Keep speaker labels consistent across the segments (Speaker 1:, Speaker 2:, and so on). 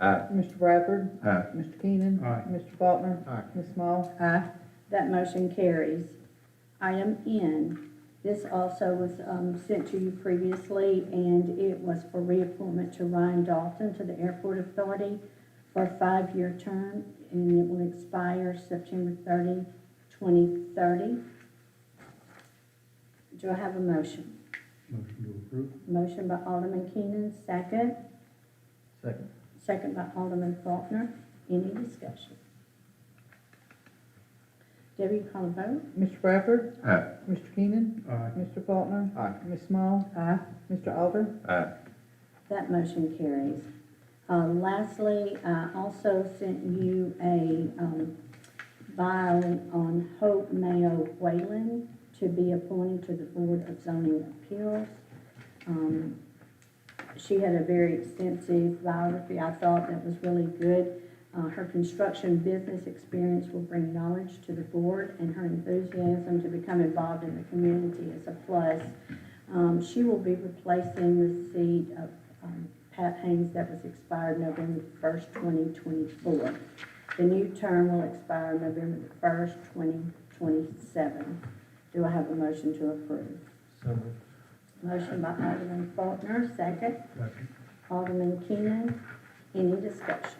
Speaker 1: Aye.
Speaker 2: Mr. Bradford?
Speaker 1: Aye.
Speaker 2: Mr. Keenan?
Speaker 1: Aye.
Speaker 2: Mr. Faulkner?
Speaker 1: Aye.
Speaker 2: Ms. Small? Aye.
Speaker 3: That motion carries. Item N, this also was um, sent to you previously, and it was for reappointment to Ryan Dalton to the Airport Authority for a five-year term, and it will expire September 30, 2030. Do I have a motion?
Speaker 1: Motion to approve.
Speaker 3: Motion by Alderman Keenan, second.
Speaker 1: Second.
Speaker 3: Second by Alderman Faulkner. Any discussion? Debbie, you call a vote?
Speaker 2: Mr. Bradford?
Speaker 1: Aye.
Speaker 2: Mr. Keenan?
Speaker 1: Aye.
Speaker 2: Mr. Faulkner?
Speaker 1: Aye.
Speaker 2: Ms. Small? Aye. Mr. Alder?
Speaker 1: Aye.
Speaker 3: That motion carries. Uh, Lastly, I also sent you a um, filing on Hope Mayo Whalen to be appointed to the Board of Zoning Appeals. Um, She had a very extensive biography, I thought that was really good. Uh, Her construction business experience will bring knowledge to the board, and her enthusiasm to become involved in the community is a plus. Um, She will be replacing the seat of um, Pat Haynes that was expired November first, twenty twenty-four. The new term will expire November first, twenty twenty-seven. Do I have a motion to approve?
Speaker 1: So moved.
Speaker 3: Motion by Alderman Faulkner, second.
Speaker 1: Second.
Speaker 3: Alderman Keenan, any discussion?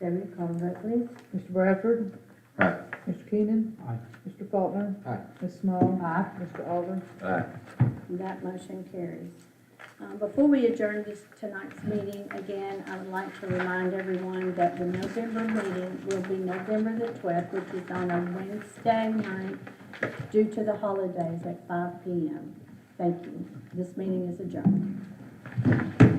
Speaker 3: Debbie, call the vote, please.
Speaker 2: Mr. Bradford?
Speaker 1: Aye.
Speaker 2: Mr. Keenan?
Speaker 1: Aye.
Speaker 2: Mr. Faulkner?
Speaker 1: Aye.
Speaker 2: Ms. Small? Aye. Mr. Alder?
Speaker 1: Aye.
Speaker 3: That motion carries. Um, Before we adjourn this, tonight's meeting, again, I would like to remind everyone that the November meeting will be November the twelfth, which is on a Wednesday night due to the holidays at five P M. Thank you. This meeting is adjourned.